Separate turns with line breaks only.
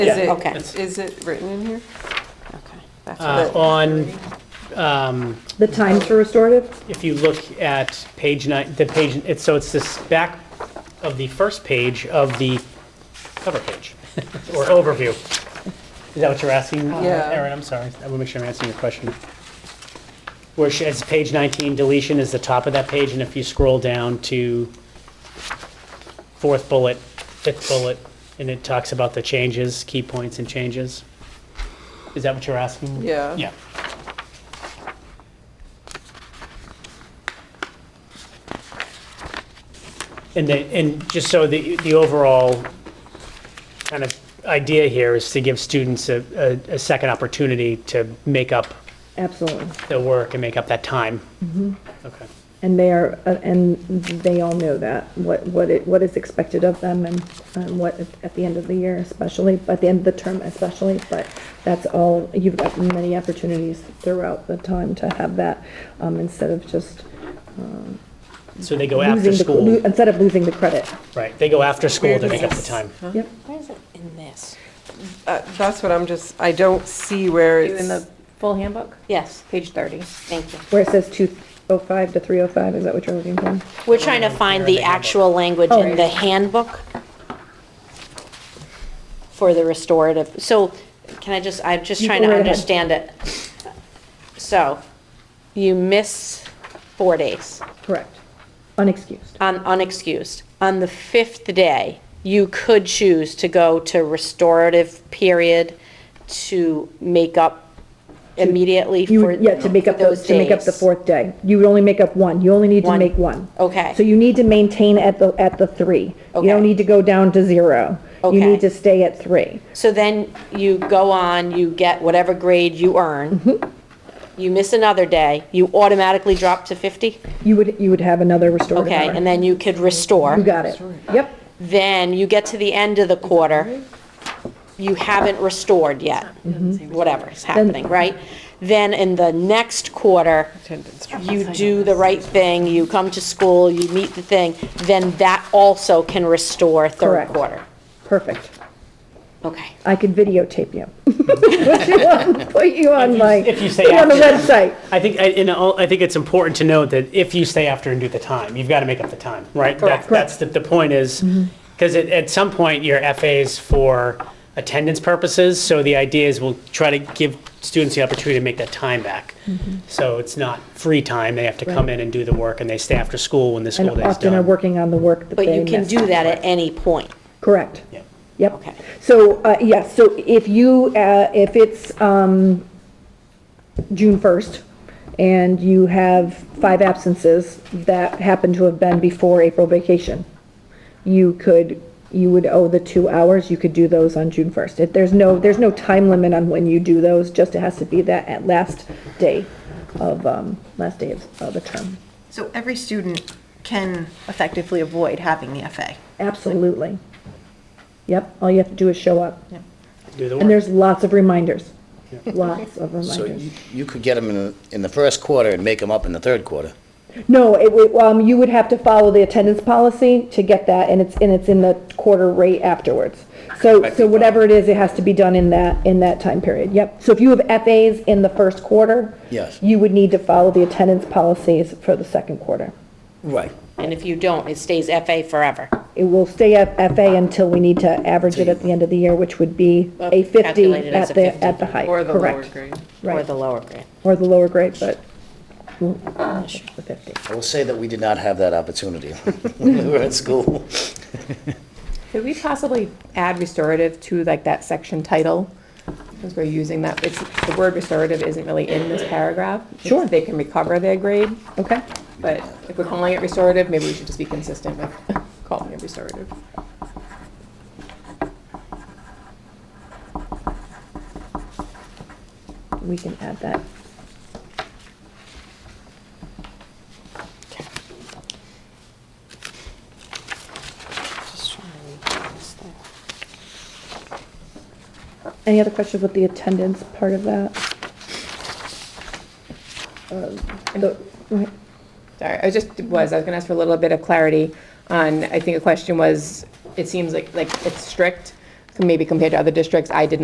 Is
Yeah, okay.
it, is it written in here? Okay. that's
Uh,
what-
On, um,
The times for restorative?
if you look at page nine, the page, it's, so it's this back of the first page of the cover page, or overview. Is that what you're asking, uh,
Yeah.
Erin? I'm sorry, I want to make sure I'm answering your question. Where she- it's page 19, deletion is the top of that page, and if you scroll down to fourth bullet, fifth bullet, and it talks about the changes, key points and changes. Is that what you're asking?
Yeah.
Yeah. And then, and just so the, the overall kind of idea here is to give students a, a, a second opportunity to make up
Absolutely.
the work and make up that time.
Mm-hmm.
Okay.
And they are, uh, and they all know that, what, what it, what is expected of them and, um what, at- at the end of the year especially, but at the end of the term especially, but that's all, you've got many opportunities throughout the time to have that, um, instead of just
So they go Oh, after
losing the, lo-
school,
instead of losing the credit.
right, they go after school to
Where
make up the
does-
time.
Yep,
Where is it in this?
Uh, That's what I'm just, I don't see where
In the
it's,
full handbook?
Yes,
Page 30.
thank you.
where it says two oh five to three oh five, is that what you're looking for?
We're trying to find the actual language in the handbook for the restorative. So can I just, I'm just
You
trying
go
to
right ahead.
understand it. So you miss four days,
Correct, unexcused.
un- unexcused. On the fifth day, you could choose to go to restorative period to make up immediately
You,
for those days.
yeah, to make up those, to make up the fourth day. You would only make up one. You only need to
One.
make one.
Okay.
So you need to maintain at the, at the three. You
Okay.
don't need to go down to zero. You
Okay.
need to stay at three.
So then you go on, you get whatever grade you earn.
Mm-hmm.
You miss another day, you automatically drop to 50?
You would, you would have another restorative
Okay,
hour.
and then you could restore.
You got it. Yep.
Then you get to the end of the quarter, you haven't restored yet, whatever is happening, right? Then in the next quarter, you do the right thing, you come to school, you meet the thing, then that also can restore third
Correct.
quarter.
Perfect.
Okay.
I could videotape you. Put you on, put you on like,
If you say
on the
after.
website.
I think, I- and all- I think it's important to note that if you stay after and do the time, you've got to make up the time, right? Correct. That's, the, the point is,
Mm-hmm.
because at, at some point, your FA's for attendance purposes, so the idea is we'll try to give students the opportunity to make that time back.
Mm-hmm.
So it's not free time, they have to come in and do the work, and they stay after school when the
And
school day's
often are
done.
working on the work that
But
they
you can
missed.
do that at any point.
Correct.
Yeah.
Yep.
Okay.
So, uh, yeah, so if you, uh, if it's, um, June first, and you have five absences that happen to have been before April vacation, you could, you would owe the two hours, you could do those on June first. If, there's no, there's no time limit on when you do those, just it has to be that at last day of, um, last day of, of the term.
So every student can effectively avoid having the FA.
Absolutely. Yep, all you have to do is show up.
Do the
And
work.
there's lots of reminders, lots of
So
reminders.
you, you could get them in, the- in the first quarter and make them up in the third quarter.
No, it would, um, you would have to follow the attendance policy to get that, and it's, and it's in the quarter rate afterwards. So, so whatever it is, it has to be done in that, in that time period, yep. So if you have FAs in the first quarter.
Yes.
You would need to follow the attendance policies for the second quarter.
Right.
And if you don't, it stays FA forever.
It will stay at FA until we need to average it at the end of the year, which would be a fifty
Calculated as
at
a
the,
50.
at the height,
or the lower
correct.
grade.
Or
Right,
the lower grade.
or the lower grade, but, mm, the fifty.
I will say that we did not have that opportunity when we were at school.
Could we possibly add restorative to like that section title? Because we're using that, it's, the word restorative isn't really in this paragraph. It's
Sure.
They can recover their grade,
Okay,
but if we're calling it restorative, maybe we should just be consistent with calling it restorative.
we can add that.
Just trying to read this thing.
Any other questions with the attendance part of that? Um, the-
Sorry, I just was, I was gonna ask for a little bit of clarity on, I think a question was, it seems like, like it's strict. Can maybe compared to other districts, I did not.